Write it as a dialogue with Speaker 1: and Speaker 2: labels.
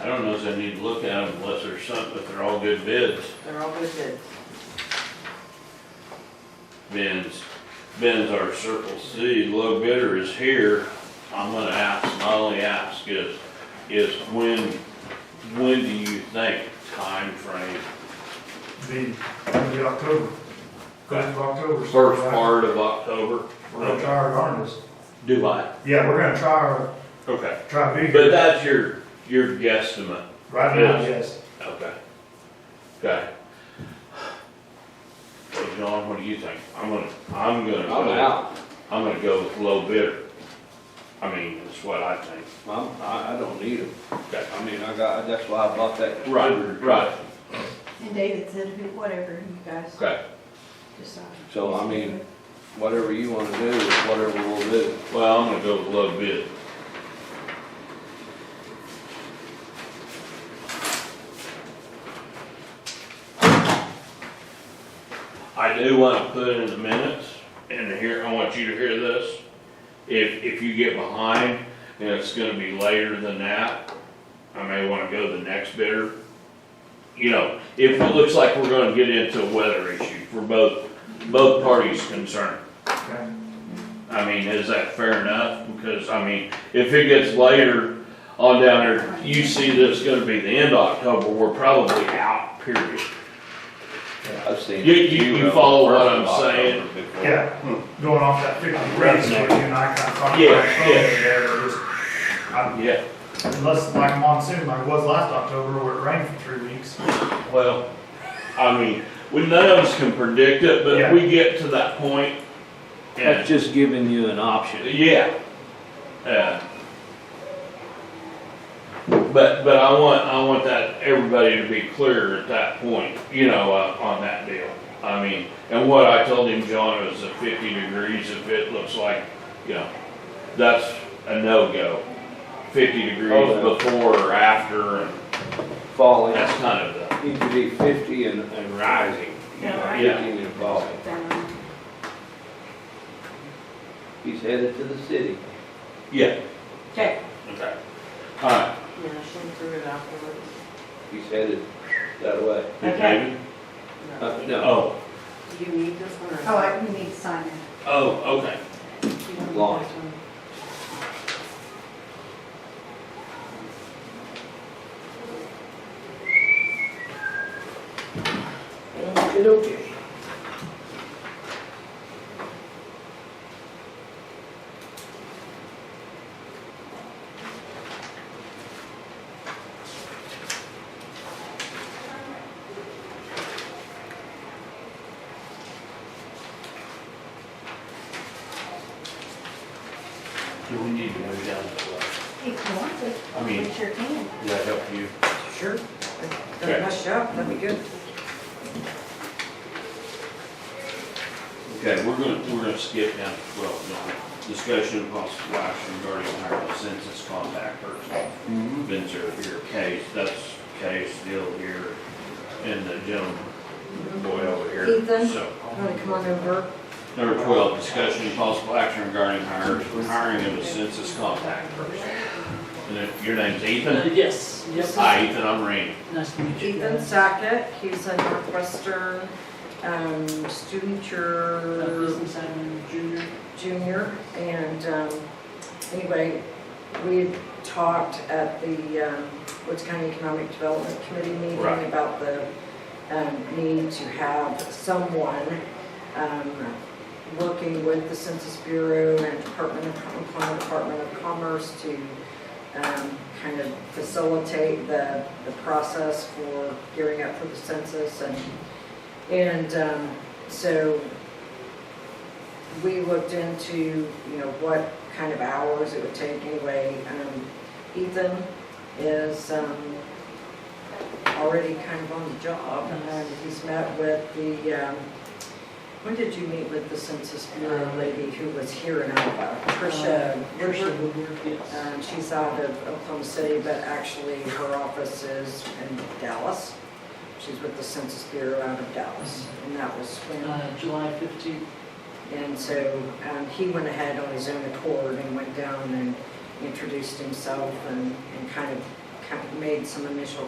Speaker 1: I don't know if I need to look at them unless there's something, if they're all good bids,
Speaker 2: They're all good bids.
Speaker 1: bins. Bins are Circle C, low bidder is here. I'm gonna ask, my only ask is, is when, when do you think time frame?
Speaker 3: be, gonna be October, first of October. so
Speaker 1: First
Speaker 3: we're-
Speaker 1: part of October?
Speaker 3: We're gonna try our darndest.
Speaker 1: Do I?
Speaker 3: Yeah, we're gonna try our,
Speaker 1: Okay.
Speaker 3: try to be
Speaker 1: But
Speaker 3: here
Speaker 1: that's your, your guesstimate.
Speaker 3: right now, yes.
Speaker 1: Okay. Okay. So John, what do you think? I'm gonna, I'm gonna
Speaker 4: I'm
Speaker 1: go,
Speaker 4: out.
Speaker 1: I'm gonna go with low bidder. I mean, that's what I think.
Speaker 4: I'm, I, I don't need them.
Speaker 1: Okay.
Speaker 4: I mean, I got, that's why I bought that.
Speaker 1: Right, right,
Speaker 5: And David said, "Who- whatever you guys
Speaker 1: okay.
Speaker 5: decide.
Speaker 4: So, I mean, whatever you wanna do is whatever we'll do.
Speaker 1: Well, I'm gonna go with low bid. I do wanna put in the minutes, and here, I want you to hear this. If, if you get behind, and it's gonna be later than that, I may wanna go the next bidder. You know, if it looks like we're gonna get into a weather issue for both, both parties concerned.
Speaker 3: Okay.
Speaker 1: I mean, is that fair enough? Because, I mean, if it gets later on down there, you see that it's gonna be the end of October, we're probably out, period.
Speaker 4: I've seen.
Speaker 1: You- you- you follow what I'm
Speaker 4: First of October
Speaker 1: saying?
Speaker 4: before.
Speaker 3: Yeah, going off that fifty degrees, so you and I kind of talked about
Speaker 1: Yeah,
Speaker 3: it
Speaker 1: yeah.
Speaker 3: there, just, I-
Speaker 1: Yeah,
Speaker 3: unless like monsoon, like it was last October, where it rained for three weeks.
Speaker 1: well, I mean, we, none of us can predict it, but
Speaker 3: Yeah.
Speaker 1: we get to that point.
Speaker 6: That's
Speaker 1: And,
Speaker 6: just giving you an option.
Speaker 1: yeah. Uh, But, but I want, I want that, everybody to be clear at that point, you know, uh, on that deal. I mean, and what I told him, John, was at fifty degrees, if it looks like, you know, that's a no-go. Fifty
Speaker 4: Oh,
Speaker 1: degrees
Speaker 4: yeah.
Speaker 1: before or after, and
Speaker 4: Falling,
Speaker 1: that's kind of the,
Speaker 4: you could be fifty and, and rising.
Speaker 5: Yeah.
Speaker 4: Fifty and falling.
Speaker 5: Down.
Speaker 4: He's headed to the city.
Speaker 1: yeah,
Speaker 2: Okay.
Speaker 1: okay. All right.
Speaker 2: Yeah, she'll prove it afterwards.
Speaker 4: He's headed that way.
Speaker 2: Okay.
Speaker 4: Uh, no,
Speaker 1: Oh,
Speaker 2: Do you need this one or?
Speaker 5: Oh, I, you need to sign it.
Speaker 1: oh, okay.
Speaker 2: You don't need
Speaker 4: Long.
Speaker 2: this one.
Speaker 1: Do we need to move down to the left?
Speaker 5: If you want to,
Speaker 1: I mean-
Speaker 5: we sure can.
Speaker 1: Does that help you?
Speaker 2: Sure.
Speaker 1: Okay.
Speaker 2: Don't mess you up, that'd be good.
Speaker 1: Okay, we're gonna, we're gonna skip down to twelve, John. Discussion of possible action regarding hiring a census contact person. Been served here, case, that's case, deal here, and the gentleman, boy over here.
Speaker 2: Ethan.
Speaker 1: So,
Speaker 2: Wanna come on over?
Speaker 1: number twelve, discussion of possible action regarding hiring, hiring of a census contact person. And if your name's Ethan?
Speaker 7: Yes, yes.
Speaker 1: Hi, Ethan, I'm Randy.
Speaker 7: Nice to meet you.
Speaker 2: Ethan Sackett, he's a Northwestern, um, student,
Speaker 7: Uh,
Speaker 2: your
Speaker 7: Business admin junior.
Speaker 2: junior, and, um, anyway, we had talked at the, um, Woods County Economic Development Committee meeting
Speaker 1: Right.
Speaker 2: about the, um, need to have someone, um, working with the Census Bureau and Department of, Department Department of Commerce to, um, kind of facilitate the, the process for gearing up for the census and, and, um, so we looked into, you know, what kind of hours it would take anyway. Um, Ethan is um, already kind of on the job, and he's met with the, um, when did you meet with the Census Bureau lady who was here in Alba? Tricia,
Speaker 7: Tricia
Speaker 2: Tricia,
Speaker 7: Uh, Woodward, Uh, yes.
Speaker 2: um, she's out of Oklahoma City, but actually her office is in Dallas. She's with the Census Bureau out of Dallas, and that was when
Speaker 7: Uh, July fifteenth,
Speaker 2: and so um, he went ahead on his own accord and went down and introduced himself and, and kind of kind of made some initial